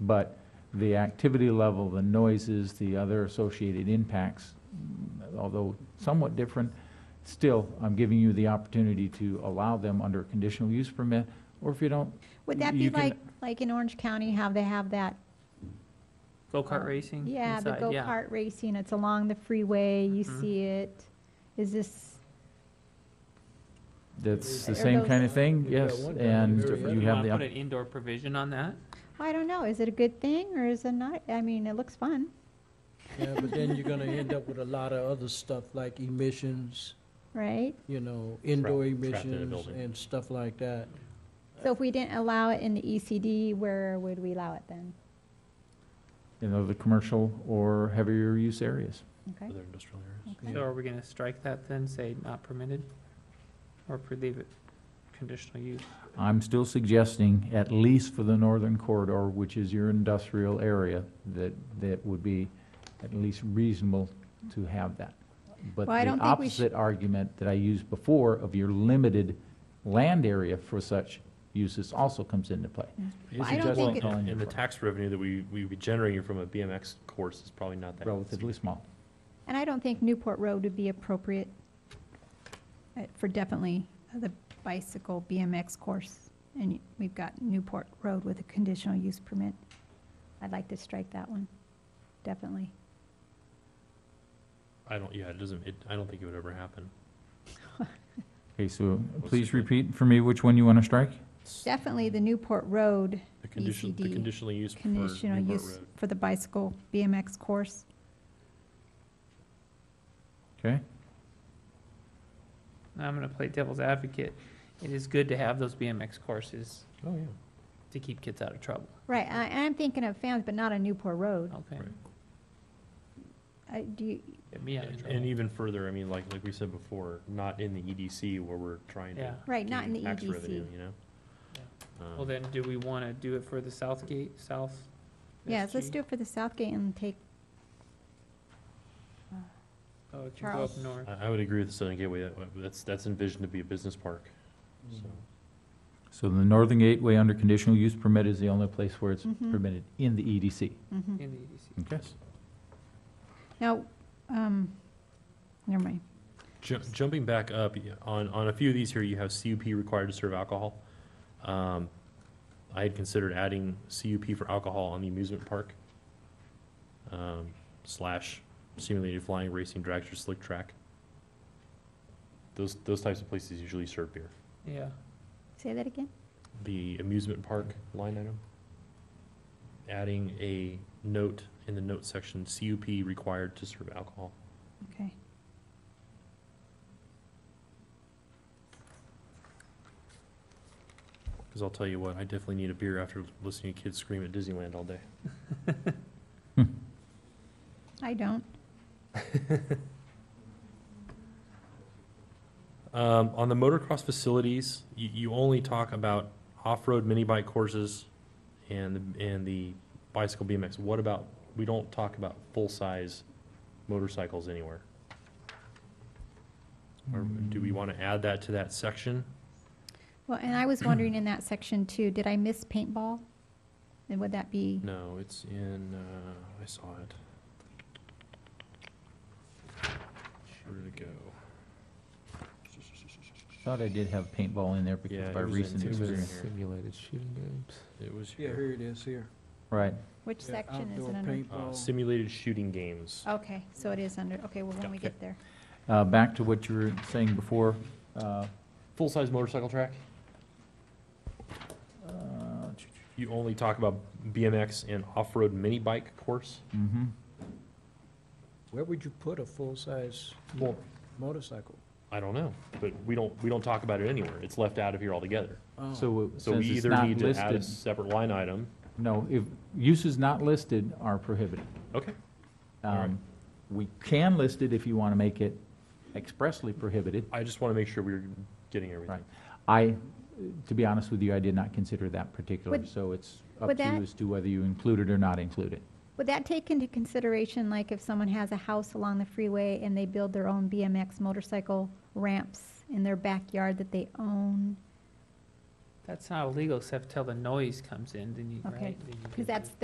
but the activity level, the noises, the other associated impacts, mm, although somewhat different, still, I'm giving you the opportunity to allow them under a conditional use permit, or if you don't, Would that You be can- like, like in Orange County, how they have that, Go-kart racing Uh, yeah, the Mm-hmm. inside, yeah. go-kart racing, it's along the freeway, you Mhm. see it. Is this, that's the Are same those- kind of thing, We've got yes, one down and in the Do you you have want the, to put op- an indoor provision on that? oh, I don't know, is it a good thing or is it not? I mean, it looks fun. Yeah, but then you're gonna end up with a lot of other stuff like emissions, right? you know, indoor trapped in a emissions building. and stuff like that. So if we didn't allow it in the ECD, where would we allow it then? you know, the commercial or heavier use areas. Okay, Other industrial areas. okay. So are we gonna strike that then, say not permitted? Or pre- leave it conditional use? I'm still suggesting, at least for the northern corridor, which is your industrial area, that, that would be at least reasonable to have that. But Well, the I don't think we sh- opposite argument that I used before of your limited land area for such uses also comes into play. Well, I don't think, it- Calling And the for- tax revenue that we, we would be generating from a BMX course is probably not that. relatively small. and I don't think Newport Road would be appropriate uh, for definitely the bicycle BMX course. And we've got Newport Road with a conditional use permit. I'd like to strike that one, definitely. I don't, yeah, it doesn't, it, I don't think it would ever happen. Okay, so see please that. repeat for me which one you want to strike? Definitely the Newport Road The condition, the ECD, conditional use for conditional Newport use Road. for the bicycle BMX course. Okay? Now I'm gonna play devil's advocate. It is good to have those BMX courses Oh, yeah. to keep kids out of trouble, Right, I, I'm thinking of fans, but not on Newport Road. okay? Right. I, do you, Get me out of And- trouble. And even further, I mean, like, like we said before, not in the EDC where we're trying to. Yeah. Right, not in gain the E tax EDC. revenue, You know? Um, Well, then, do we wanna do it for the South Gate, South? yes, let's SG? do it for the South Gate and take, Oh, it can go up Charles. north. I, I would agree with the Southern Gateway, That- that's, that's envisioned to be a business park, so. So the northern gateway under conditional use permit is the only place where it's Mhm. permitted in the E EDC. mhm. In the E EDC. Okay? now, um, never mind. Ju- Jumping back up, y- on, on a few of these here, you have CUP required to serve alcohol. Um, I had considered adding CUP for alcohol on the amusement park, um, slash simulated flying, racing, dragster, slick track. Those, those types of places usually serve beer. Yeah, Say that again? The amusement park line item, adding a note in the note section, CUP required to serve alcohol. Okay. Because I'll tell you what, I definitely need a beer after listening to kids scream at Disneyland all day. I don't. Um, on the motocross facilities, you, you only talk about off-road mini bike courses and, and the bicycle BMX. What about, we don't talk about full-size motorcycles anywhere. Or do we want to add that to that section? Well, and I was wondering in that section too, did I miss paintball? And would that be, No, it's in, uh, I saw it. Where did it go? Thought I did have paintball in there Yeah, because it by was in- recent it was in experience. here. Simulated shooting games. It was Yeah, here. here it is, here. Right. which Yeah, section is outdoor it under? Uh, paintball. simulated shooting games. Okay, so it is under, okay, well, when we Okay. get there. Uh, Back to what you were saying before. uh, Full-size motorcycle track? uh, You only talk about BMX and off-road mini bike course? mhm. Where would you put a full-size Well, motorcycle? I don't know, but we don't, we don't talk about it anywhere. It's left out of here altogether. Oh, So it- So we since it's either not need to add a listed, separate line item. no, if uses not listed are prohibited. Okay. Um, Alright. We can list it if you want to make it expressly prohibited. I just want to make sure we're getting everything. Right. I, to be honest with you, I did not consider that particular, Would- so it's up would to that- you as to whether you include it or not include it. Would that take into consideration, like if someone has a house along the freeway and they build their own BMX motorcycle ramps in their backyard that they own? that's not illegal except till the noise comes in, then you, Okay, right? then you Because get the- that's,